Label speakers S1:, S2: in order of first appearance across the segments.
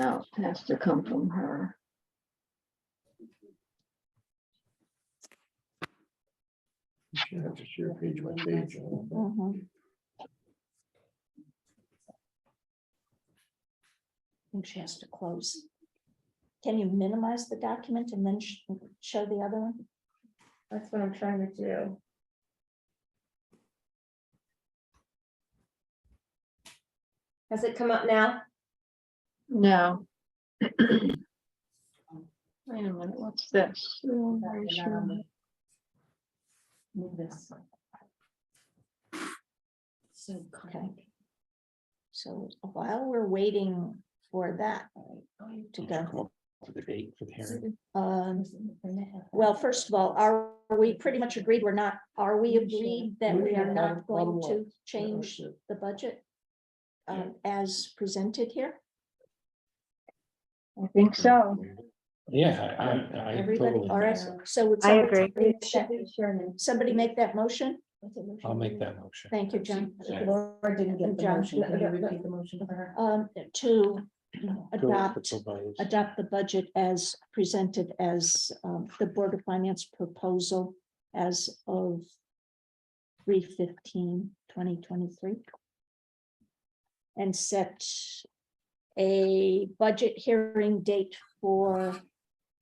S1: No, it has to come from her.
S2: You have to share page by page. uh,
S3: Uh-huh.
S4: Mhm. And she has to close. Can you minimize the document and then sh- show the other one?
S3: That's what I'm trying to do. Has it come up now?
S1: No. Wait a minute, what's this? Oh, I'm sure.
S4: Move this. So. So while we're waiting for that to
S2: come
S4: go,
S2: up with the date for the hearing.
S4: um, well, first of all, are we pretty much agreed we're not, are we agreed that we are not going to change the budget uh, as presented here?
S1: I think so.
S2: Yeah, I- I, I
S4: Everybody,
S2: totally,
S4: all right, so would.
S5: I
S4: somebody
S5: agree.
S4: make that- Somebody make that motion?
S2: I'll make that motion.
S4: Thank you, John.
S2: Second.
S4: Laura didn't get the motion. Um, to
S2: Go with the
S4: adopt,
S2: proposed.
S4: adopt the budget as presented as um, the Board of Finance proposal as of 2023, And set a budget hearing date for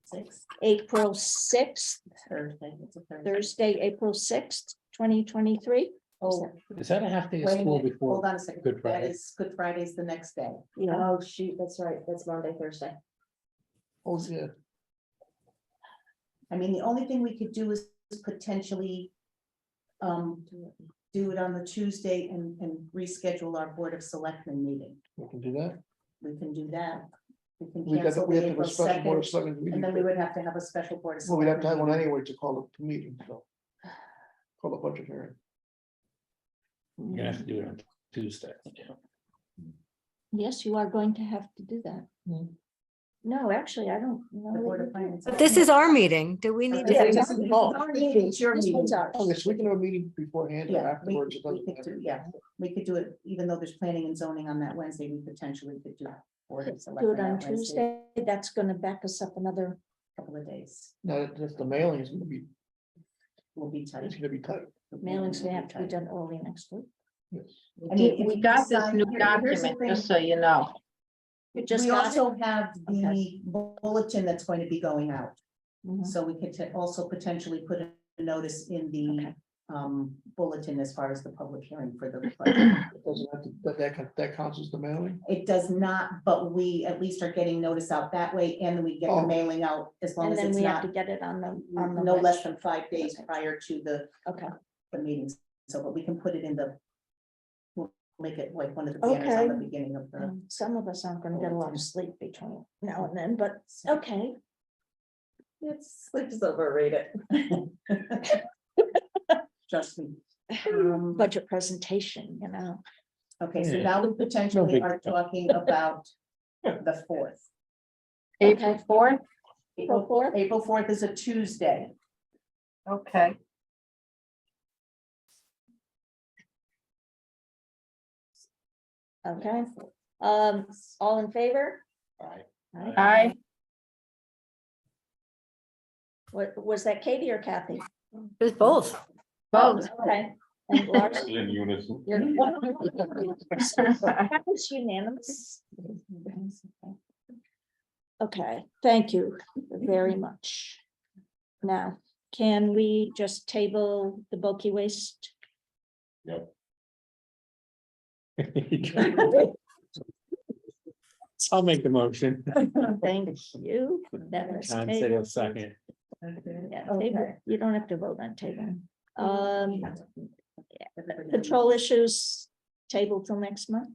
S3: Six.
S4: April sixth,
S3: Thursday, it's a Thursday.
S4: Thursday, April sixth, twenty twenty-three.
S6: Oh,
S2: Is that a half day of
S6: wait a
S2: school
S6: minute, hold
S2: before?
S6: on a second.
S2: Good
S6: That
S2: Friday?
S6: is, Good Friday's the next day.
S4: Yeah,
S3: Oh, shoot, that's right, that's Monday, Thursday.
S2: Oh, yeah.
S6: I mean, the only thing we could do is potentially um, do it on the Tuesday and, and reschedule our Board of Selectmen meeting.
S2: We can do that.
S6: We can do that. We can
S7: We
S6: cancel
S7: got, we
S6: the
S7: have to
S6: April
S7: have a special board of
S6: 2nd,
S7: selectmen meeting.
S6: and then we would have to have a special board. of
S7: Well, we'd have to have
S6: Selectmen
S7: one anyway to call a meeting, so. Call a budget hearing.
S2: You're gonna have to do it on Tuesday. yeah.
S4: yes, you are going to have to do that. No, actually, I don't know.
S6: meeting, The
S4: that
S6: Board
S4: you
S6: of
S4: do.
S6: Finance.
S5: But this is our meeting. Do we need
S6: Yeah,
S5: to?
S6: this is- this is our meeting, it's your
S4: This
S6: meeting.
S4: one's ours.
S7: Oh, yes, we can have a meeting beforehand or
S6: Yeah, we,
S7: afterwards. it
S6: we
S7: doesn't
S6: could do,
S7: matter.
S6: yeah, we could do it, even though there's planning and zoning on that Wednesday, we potentially could do. Board of
S4: Do
S6: Selectmen
S4: it on
S6: that Wednesday,
S4: Tuesday, that's gonna back us up another,
S6: Couple of days,
S7: No, that's the mailing is gonna be,
S6: we'll be
S7: it's
S6: tight.
S7: gonna be tight.
S4: mailings gonna have to be
S6: Tight.
S4: done early next week.
S6: I mean,
S1: Did-
S6: if
S1: We
S6: you
S1: got this
S6: decide-
S1: new
S6: here- here's the
S1: document, just so you know.
S4: You just
S6: We
S4: got it?
S6: also have the
S4: Okay.
S6: bulletin that's going to be going out,
S4: Mhm.
S6: so we could t- also potentially put a notice in the
S4: Okay.
S6: um bulletin as far as the public hearing for the. budget.
S7: It doesn't have to, that, that, coun- that counts as the mailing?
S6: It does not, but we at least are getting notice out that way, and then we get the
S7: Oh.
S6: mailing out as long
S4: And
S6: as
S4: then
S6: it's
S4: we have
S6: not um,
S4: to get it on the, on the.
S6: no less
S4: website.
S6: than five days
S4: Okay.
S6: prior to the,
S4: Okay,
S6: the meetings. So, but we can put it in the, we'll make it like one of the banners on the beginning of the.
S4: Um, some of us aren't gonna get a lot of sleep between now and then, but, okay,
S3: It's, let's overrate it.
S6: Trust me. Um,
S4: budget presentation, you know.
S6: Okay, so
S2: Yeah.
S6: now we potentially
S2: big
S6: are
S2: deal.
S6: talking about the fourth.
S1: April fourth?
S4: April
S6: April
S4: fourth,
S6: April fourth is a Tuesday.
S1: Okay.
S4: okay, um, all in favor?
S2: All right.
S4: Aye.
S1: Aye.
S4: Wa- was that Katie or Kathy?
S5: There's both.
S1: Both.
S4: Okay. And Lars,
S8: In unison.
S4: you're- That was unanimous. Okay, thank you very much. Now, can we just table the bulky waste?
S2: I'll make the motion.
S4: Thank you. That was
S2: John said
S4: tabled.
S2: he'll second.
S4: Yeah, table. You don't have to vote on table. Um,
S6: Everybody-
S4: control issues, table till next month?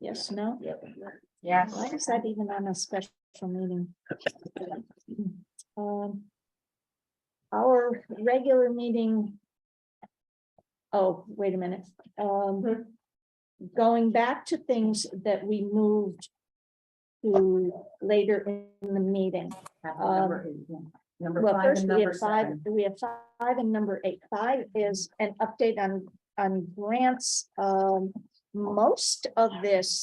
S4: Yes, no?
S1: Yes.
S4: Why is that even on a special meeting? Um, Our regular meeting. Oh, wait a minute.
S6: Hmm.
S4: Um, going back to things that we moved to later in the meeting.
S6: Have the number eight, yeah. Number
S4: Um, Well,
S6: five
S4: first
S6: and
S4: we
S6: number
S4: have five,
S6: seven.
S4: we have five and number eight. Five is an update on, on grants. Um, most of this